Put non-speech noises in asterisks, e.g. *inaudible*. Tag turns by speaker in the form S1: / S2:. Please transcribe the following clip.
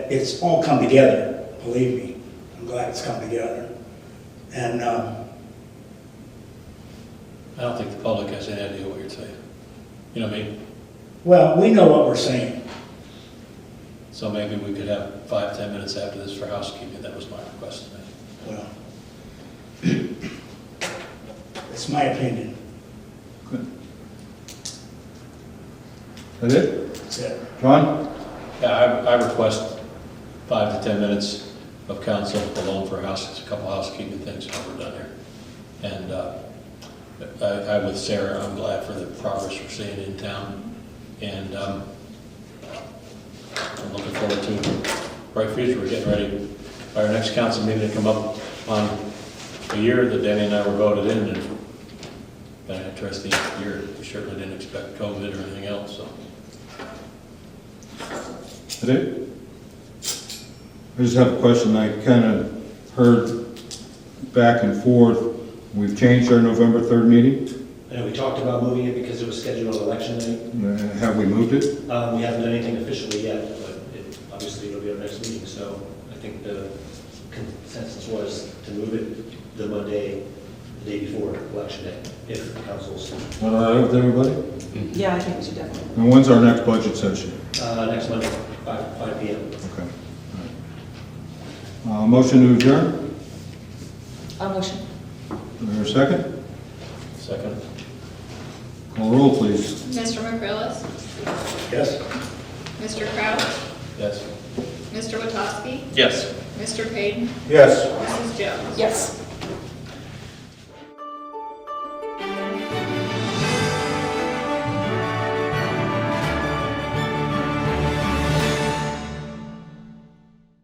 S1: it's all come together, believe me. I'm glad it's come together. And, um,
S2: I don't think the public has any idea what you're saying. You know what I mean?
S1: well, we know what we're saying.
S2: So maybe we could have five, ten minutes after this for housekeeping, that was my request to make.
S1: Well, *clears throat* it's my opinion,
S3: That it?
S1: that's it.
S3: John?
S2: Yeah, I, I request five to ten minutes of council alone for house, a couple housekeeping things while we're done here. And, uh, I, I with Sarah, I'm glad for the progress we're seeing in town, and, um, I'm looking forward to a bright future, we're getting ready, our next council meeting to come up on a year that Danny and I were voted in, and it's been an interesting year, we certainly didn't expect COVID or anything else, so.
S3: That it? I just have a question. I kind of heard back and forth. We've changed our November 3rd meeting.
S4: And we talked about moving it because it was scheduled on election night.
S3: Uh, Have we moved it?
S4: Um, we haven't done anything officially yet, but it, obviously it'll be our next meeting, so I think the consensus was to move it the Monday, the day before election day, if council's,
S3: All right with everybody?
S5: Yeah, I think we should definitely.
S3: And when's our next budget session?
S4: uh, next Monday, five, five P M.
S3: Okay. all right. Uh, Motion to adjourn?
S5: A motion.
S3: Is there a second?
S2: Second?
S3: Call roll, please.
S6: Mr. McCrillis?
S1: Yes?
S6: Mr. Crouch?
S2: Yes.
S6: Mr. Witowski?
S2: Yes.
S6: Mr. Payton?
S3: Yes.
S6: Mrs. Jones?
S5: Yes.